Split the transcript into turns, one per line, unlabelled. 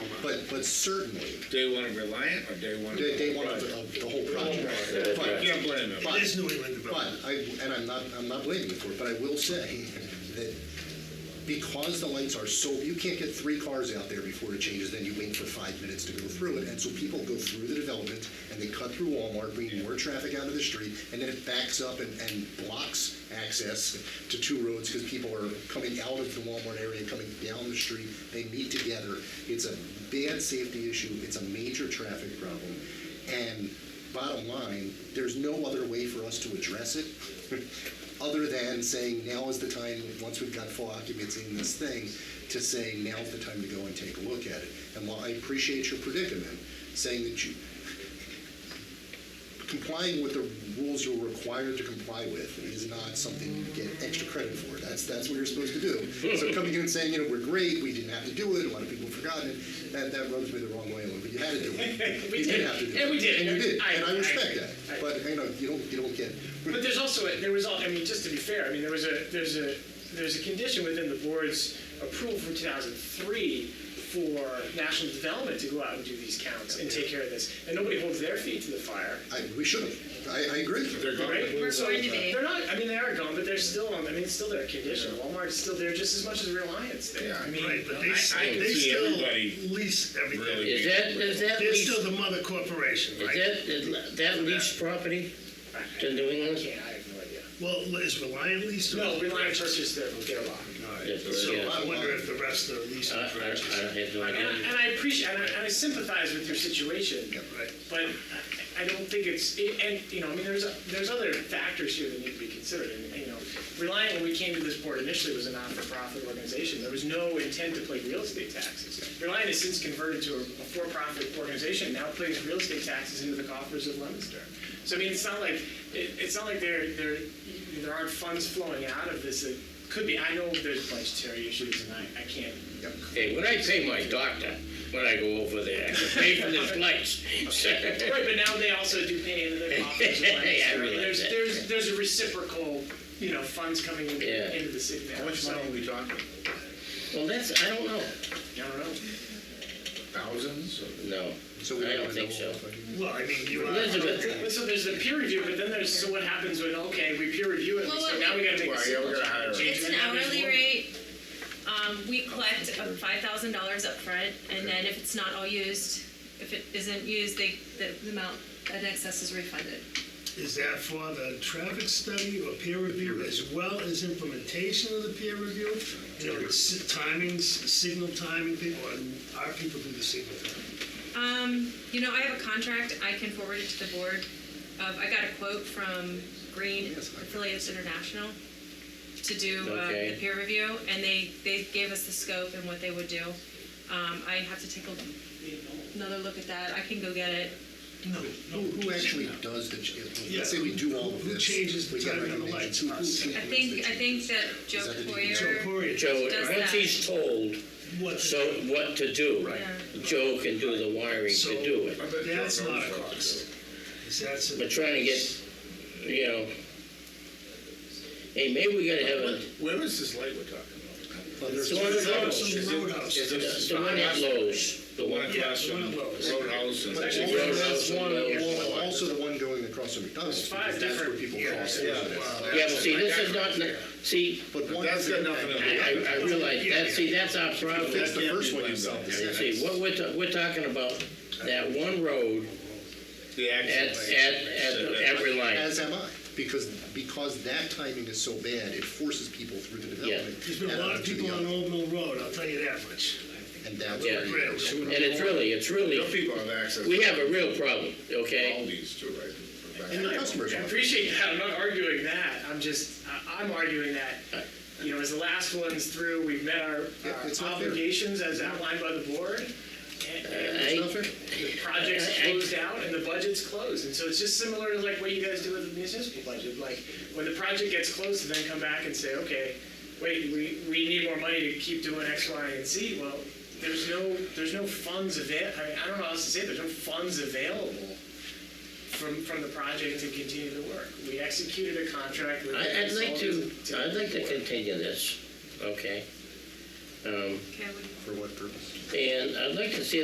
but, but certainly,
Day one of Reliant or day one of?
they, they want to, the whole project.
You
But,
can't blame them.
but-
It is New England
but,
development.
I, and I'm not, I'm not blaming you for it, but I will say that because the lights are so, you can't get three cars out there before it changes, then you wait for five minutes to go through it, and so people go through the development, and they cut through Walmart, bringing more traffic out of the street, and then it backs up and, and blocks access to two roads, because people are coming out of the Walmart area, coming down the street, they meet together. It's a bad safety issue, it's a major traffic problem, and bottom line, there's no other way for us to address it other than saying now is the time, once we've got full occupancy in this thing, to say now's the time to go and take a look at it. And while I appreciate your predicament, saying that you, complying with the rules you're required to comply with is not something you get extra credit for. That's, that's what you're supposed to do. So coming in and saying, you know, we're great, we didn't have to do it, a lot of people have forgotten it, that, that rubs me the wrong way a little bit. You had to do it.
We
You
did.
have to do it.
And we did.
And you did,
I-
and I
I-
respect
I-
that. But, you know, you don't, you don't get,
But there's also, a- there was, al- I mean, just to be fair, I mean, there was a, there's a, there's a condition within the board's approval from 2003 for national development to go out and do these counts and take care of this. And nobody holds their feet to the fire,
I, we should have. I, I agree.
They're gone.
right?
We're
So
going to be.
They're not, I mean, they are gone, but they're still on, I mean, it's still their condition. Walmart's still there just as much as Reliance there. I mean,
Right, but
I-
they,
I
s-
can
they
see
still
everybody
lease everything.
really-
Is that, is that
They're
lease,
still the mother corporation, right?
is that, that lease property to New
I
England?
can't, I have no idea.
Well, is Reliant leased? or-
No, Reliance Church is their, their lot.
All right.
Yes,
So
yeah. Uh,
I wonder if the rest are leased
I, I I
or franchise.
have no
And I,
idea.
and I appreciate, and I, and I sympathize with your situation.
Right.
But I- I don't think it's, it- and, you know, I mean, there's, there's other factors here that need to be considered. And, you know, Reliant, when we came to this board initially, was a not-for-profit organization. There was no intent to play real estate taxes. Reliant has since converted to a a for-profit organization, now plays real estate taxes into the coffers of Leominster. So, I mean, it's not like, it, it's not like there, there, there aren't funds flowing out of this. It could be, I know there's budgetary issues, and I, I can't
Hey, when I pay my doctor, when I go over there, I pay for this lights.
Right, but now they also do pay into their coffers. and like,
Yeah, I
so
realize
There's,
that.
there's, there's a reciprocal, you know, funds coming into,
Yeah.
into the city. now,
How much
so-
money are we talking?
Well, that's, I don't know.
I don't know.
Thousands?
No,
So we
I
wanna
don't think
know
so.
if I can-
Well, I mean, you are.
Elizabeth,
But So there's the peer review, but then there's, so what happens when, okay, we peer review it,
Well,
so
well,
now we gotta make a
Well, yeah, we're gonna hire
decision.
her.
Change
It's
it,
an
now there's
hourly
more.
rate. Um, we collect five thousand dollars up front, and then if it's not all used, if it isn't used, they, the the amount that excess is refunded.
Is that for the traffic study or peer review as well as implementation of the peer review? You know, s- timings, signal timing, people, and our people do the signal. timing.
Um, you know, I have a contract, I can forward it to the board. Uh, I got a quote from Green Affiliates International to do uh,
Okay.
the peer review, and they, they gave us the scope and what they would do. Um, I have to take a- another look at that, I can go get it.
Who, who actually does the, ch-
Yeah.
let's say we do all of
Who
this.
changes the
we got
timing on the
recommendations.
lights? Us.
Who- who
I
changes
think,
the
I think that Joe
that the
So
Poyer,
Corey,
Joe,
Does
once
that-
he's told
what?
so what to do,
Yeah.
Joe can do the wiring to do it.
That's not a cost. Is that's
But
a,
trying to get, you know, hey, maybe we gotta have a,
Where was this light we're talking
Well, there's-
the one at Lowe's,
some roadhouse.
is it-
the one at Lowe's.
The one across
Yeah, the
from
one at Lowe's.
Roadhouse and.
But also
Roadhouse
that's one-
and Lowe's.
well, Also the one going across from McDonald's,
Five
because that's where
different-
people
yeah,
cross.
yeah.
over.
Yeah, but see, this is not, see,
But one
That's
has
got
an
nothing
impact.
to do
I, I I realize, that, see, that's our problem.
That's the
Can't
first
be
one you
blamed
said.
on.
Yeah.
See, what we're, ta- we're talking about, that one road
The
at,
accent.
at, at, at Reliance.
As am I, because, because that timing is so bad, it forces people through the development.
there's been a lot of people on Old Mill Road, I'll tell you that much.
And that's
Yeah.
where you.
Rails.
And it's really, it's
Real
really,
people have access.
we have a real problem,
All
okay?
these too, right?
And the customers.
I
want it.
appreciate that, I'm not arguing that, I'm just, I- I'm arguing that, you know, as the last ones through, we've met our
Yeah,
our
it's not fair.
obligations as outlined by the board. and- and
It's
I,
not fair.
the project's
I- I-
closed out and the budget's closed. And so it's just similar to like what you guys do with the municipal budget. Like when the project gets closed and then come back and say, okay, wait, we, we need more money to keep doing X, Y, and Z. Well, there's no, there's no funds avail, I mean, I don't know how else to say it, there's no funds available from, from the project to continue the work. We executed a contract with.
I- I'd like to,
consultants
I'd like to
work.
continue this, okay? Um,
okay, I would
For what purpose?
and I'd like to see